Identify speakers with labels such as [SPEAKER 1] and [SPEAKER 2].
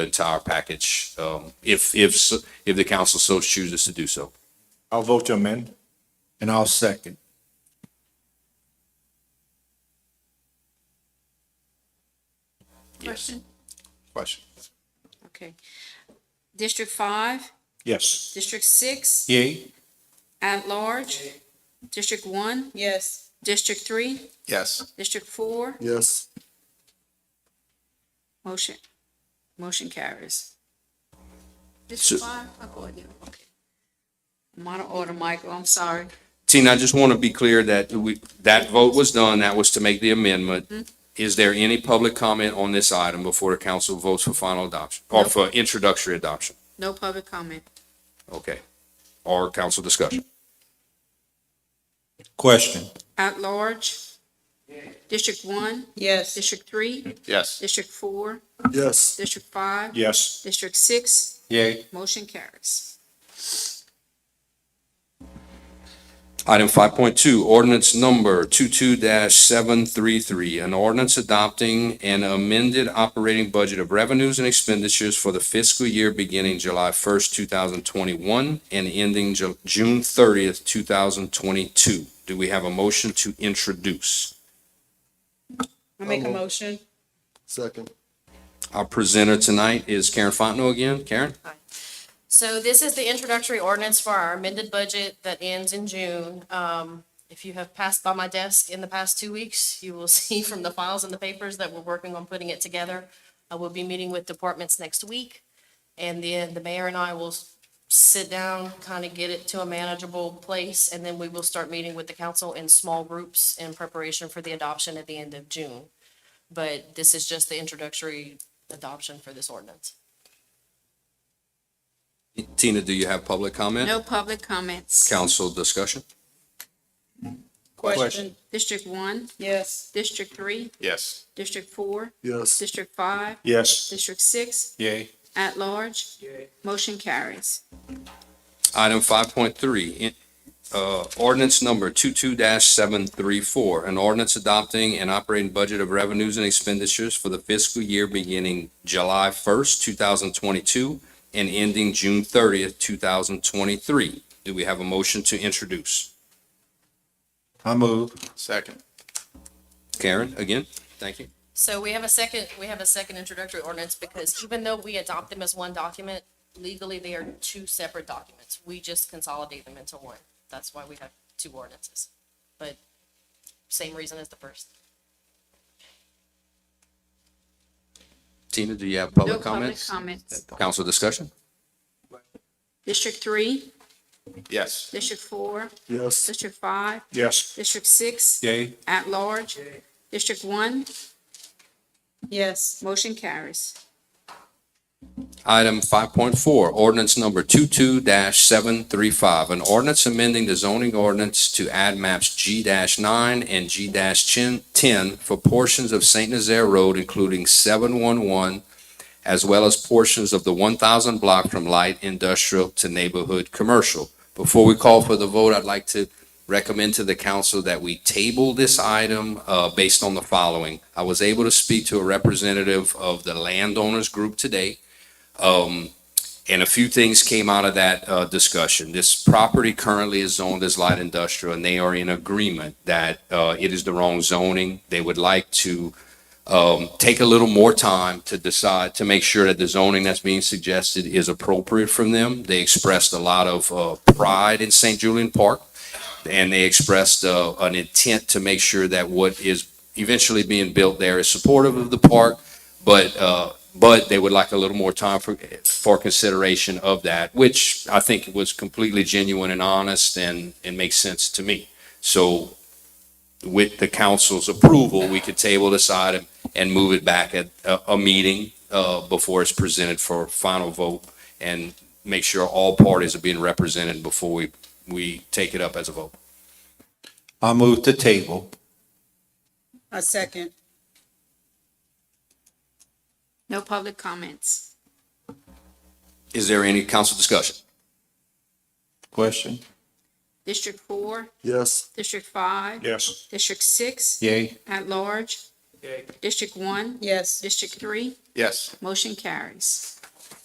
[SPEAKER 1] to our package, um, if, if, s- if the council so chooses to do so.
[SPEAKER 2] I'll vote to amend.
[SPEAKER 3] And I'll second.
[SPEAKER 4] Question?
[SPEAKER 2] Question.
[SPEAKER 4] Okay. District five,
[SPEAKER 2] Yes.
[SPEAKER 4] district six,
[SPEAKER 3] Yay?
[SPEAKER 4] at large. District one,
[SPEAKER 5] Yes.
[SPEAKER 4] district three,
[SPEAKER 3] Yes.
[SPEAKER 4] district four,
[SPEAKER 3] Yes.
[SPEAKER 4] motion, motion carries.
[SPEAKER 1] So-
[SPEAKER 4] District five, I called you, okay. I'm out of order, Michael, I'm sorry.
[SPEAKER 1] Tina, I just want to be clear that we, that vote was done, that was to make the amendment. Is there any public comment on this item before the council votes for final adoption, or for introductory adoption?
[SPEAKER 4] No public comment.
[SPEAKER 1] Okay. Or council discussion?
[SPEAKER 3] Question?
[SPEAKER 4] At large, district one,
[SPEAKER 5] Yes.
[SPEAKER 4] district three,
[SPEAKER 2] Yes.
[SPEAKER 4] district four,
[SPEAKER 3] Yes.
[SPEAKER 4] district five,
[SPEAKER 2] Yes.
[SPEAKER 4] district six,
[SPEAKER 3] Yay?
[SPEAKER 4] motion carries.
[SPEAKER 1] Item five point two, ordinance number two-two seven three-three, an ordinance adopting an amended operating budget of revenues and expenditures for the fiscal year beginning July first, two thousand twenty-one and ending Ju- June thirtieth, two thousand twenty-two. Do we have a motion to introduce?
[SPEAKER 5] I make a motion.
[SPEAKER 3] Second.
[SPEAKER 1] Our presenter tonight is Karen Fontenot again. Karen?
[SPEAKER 6] So this is the introductory ordinance for our amended budget that ends in June. Um, if you have passed by my desk in the past two weeks, you will see from the files and the papers that we're working on putting it together. I will be meeting with departments next week. And then the mayor and I will s- sit down, kind of get it to a manageable place, and then we will start meeting with the council in small groups in preparation for the adoption at the end of June. But this is just the introductory adoption for this ordinance.
[SPEAKER 1] Tina, do you have public comment?
[SPEAKER 4] No public comments.
[SPEAKER 1] Council discussion?
[SPEAKER 5] Question.
[SPEAKER 4] District one,
[SPEAKER 5] Yes.
[SPEAKER 4] district three,
[SPEAKER 2] Yes.
[SPEAKER 4] district four,
[SPEAKER 3] Yes.
[SPEAKER 4] district five,
[SPEAKER 2] Yes.
[SPEAKER 4] district six,
[SPEAKER 3] Yay?
[SPEAKER 4] at large, motion carries.
[SPEAKER 1] Item five point three, uh, ordinance number two-two seven three four, an ordinance adopting an operating budget of revenues and expenditures for the fiscal year beginning July first, two thousand twenty-two and ending June thirtieth, two thousand twenty-three. Do we have a motion to introduce?
[SPEAKER 3] I move.
[SPEAKER 2] Second.
[SPEAKER 1] Karen, again, thank you.
[SPEAKER 6] So we have a second, we have a second introductory ordinance because even though we adopt them as one document, legally they are two separate documents. We just consolidate them into one. That's why we have two ordinances. But same reason as the first.
[SPEAKER 1] Tina, do you have
[SPEAKER 4] No
[SPEAKER 1] public
[SPEAKER 4] public
[SPEAKER 1] comments?
[SPEAKER 4] comments.
[SPEAKER 1] Council discussion?
[SPEAKER 4] District three,
[SPEAKER 2] Yes.
[SPEAKER 4] district four,
[SPEAKER 3] Yes.
[SPEAKER 4] district five,
[SPEAKER 2] Yes.
[SPEAKER 4] district six,
[SPEAKER 3] Yay?
[SPEAKER 4] at large, district one,
[SPEAKER 5] Yes.
[SPEAKER 4] motion carries.
[SPEAKER 1] Item five point four, ordinance number two-two seven three five, an ordinance amending the zoning ordinance to add maps G nine and G ten for portions of Saint Nazaire Road, including seven one one, as well as portions of the one thousand block from light industrial to neighborhood commercial. Before we call for the vote, I'd like to recommend to the council that we table this item uh, based on the following. I was able to speak to a representative of the landowners group today. Um, and a few things came out of that, uh, discussion. This property currently is zoned as light industrial and they are in agreement that, uh, it is the wrong zoning. They would like to, um, take a little more time to decide, to make sure that the zoning that's being suggested is appropriate from them. They expressed a lot of, uh, pride in St. Julian Park and they expressed, uh, an intent to make sure that what is eventually being built there is supportive of the park, but, uh, but they would like a little more time for, for consideration of that, which I think was completely genuine and honest and, and makes sense to me. So with the council's approval, we could table this item and move it back at a, a meeting, uh, before it's presented for final vote and make sure all parties are being represented before we, we take it up as a vote.
[SPEAKER 3] I move to table.
[SPEAKER 5] A second.
[SPEAKER 4] No public comments.
[SPEAKER 1] Is there any council discussion?
[SPEAKER 3] Question?
[SPEAKER 4] District four,
[SPEAKER 3] Yes.
[SPEAKER 4] district five,
[SPEAKER 2] Yes.
[SPEAKER 4] district six,
[SPEAKER 3] Yay?
[SPEAKER 4] at large, District one?
[SPEAKER 5] yes.
[SPEAKER 4] District three?
[SPEAKER 2] Yes.
[SPEAKER 4] Motion carries.